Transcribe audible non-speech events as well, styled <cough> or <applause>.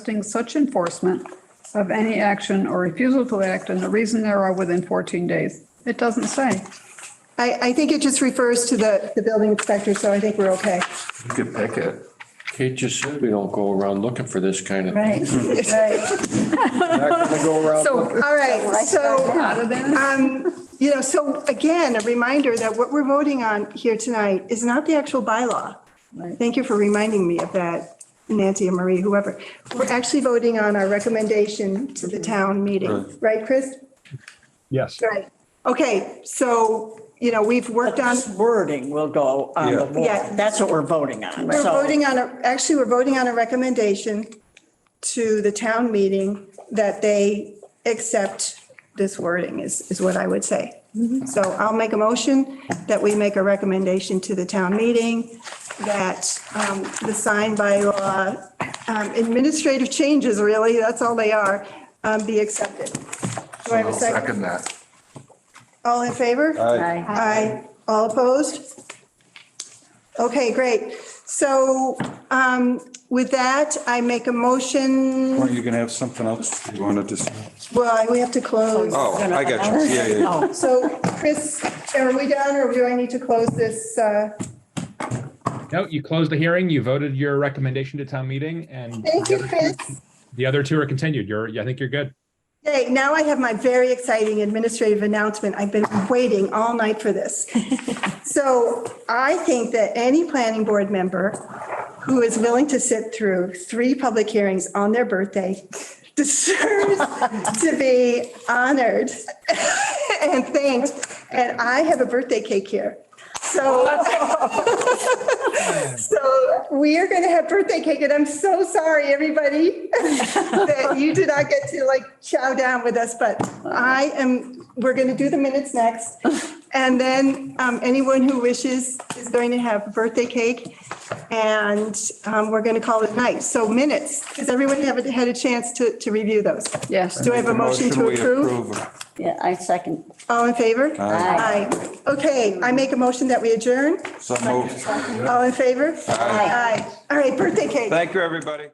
requesting such enforcement of any action or refusal to act and the reason thereof within 14 days. It doesn't say. I, I think it just refers to the, the building inspector, so I think we're okay. You could pick it. Kate just said we don't go around looking for this kind of. Right, right. So, All right, so, out of there. um, you know, so again, a reminder that what we're voting on here tonight is not the actual bylaw. Right. Thank you for reminding me of that, Nancy and Marie, whoever. We're actually voting on our recommendation to the town meeting, right, Chris? Yes. Right. Okay, so, you know, we've worked on. This wording will go on the Yeah. warrant. That's what we're voting on. We're So- voting on, a actually, we're voting on a recommendation to the town meeting that they accept this wording is, is what I would say. So I'll make a motion that we make a recommendation to the town meeting that um, the sign by law, um, administrative changes, really, that's all they are, um, be accepted. Do I have a I'll second? Second that. All in favor? Aye. All opposed? Okay, great. So um, with that, I make a motion, Weren't you going to have something else you wanted to say? well, I- we have to close. Oh, I got you. Yeah, yeah, yeah. So Chris, are we done or do I need to close this? uh, No, you closed the hearing, you voted your recommendation to town meeting, and Thank you, Chris. the other two are continued. You're, I think you're good. Hey, now I have my very exciting administrative announcement. I've been waiting all night for this. So I think that any planning board member who is willing to sit through three public hearings on their birthday <laughs> deserves to be honored <laughs> and thanked. And I have a birthday cake here. So, <laughs> so we are going to have birthday cake and I'm so sorry, everybody, <laughs> that you did not get to like chow down with us, but I am, we're going to do the minutes next. And then um, anyone who wishes is going to have birthday cake and um, we're going to call it night. So minutes, does everyone have had a chance to, to review those? Yes, Do I have a motion to we approve? approve. Yeah, I second. All in favor? Aye. Aye. Okay, I make a motion that we adjourn. So moved. All in favor? Aye. All right, birthday cake. Thank you, everybody.